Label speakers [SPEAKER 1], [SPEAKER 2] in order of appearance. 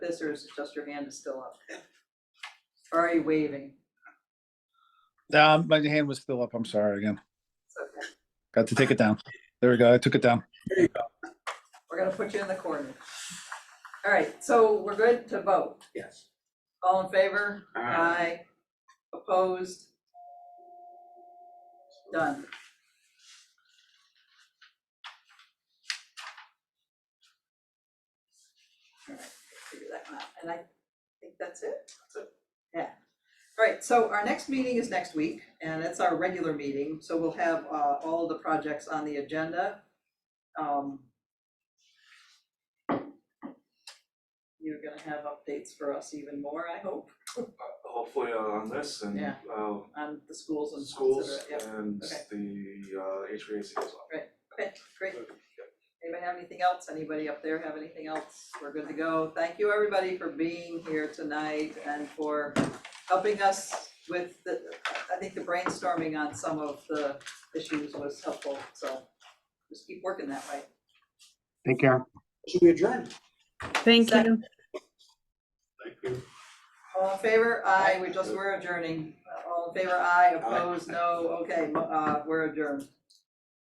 [SPEAKER 1] this, or is it just your hand is still up? Or are you waving?
[SPEAKER 2] Um, my hand was still up. I'm sorry again.
[SPEAKER 1] It's okay.
[SPEAKER 2] Got to take it down. There we go. I took it down.
[SPEAKER 1] We're gonna put you in the corner. All right, so we're good to vote.
[SPEAKER 3] Yes.
[SPEAKER 1] All in favor?
[SPEAKER 3] Aye.
[SPEAKER 1] Opposed? Done. All right, figure that one out, and I think that's it. Yeah. All right, so our next meeting is next week, and it's our regular meeting, so we'll have uh, all of the projects on the agenda. Um, You're gonna have updates for us even more, I hope.
[SPEAKER 3] Hopefully on this and,
[SPEAKER 1] Yeah.
[SPEAKER 3] uh,
[SPEAKER 1] on the schools and et
[SPEAKER 3] schools
[SPEAKER 1] cetera, yeah.
[SPEAKER 3] and
[SPEAKER 1] okay.
[SPEAKER 3] the, uh, HVAC as well.
[SPEAKER 1] Okay, great. Anybody have anything else? Anybody up there have anything else? We're good to go. Thank you, everybody, for being here tonight and for helping us with the, I think the brainstorming on some of the issues was helpful, so just keep working that way.
[SPEAKER 4] Take care.
[SPEAKER 5] Should we adjourn?
[SPEAKER 6] Thank you.
[SPEAKER 3] Thank you.
[SPEAKER 1] All in favor? Aye, we just, we're adjourning. All in favor? Aye, opposed? No, okay, mo- uh, we're adjourned.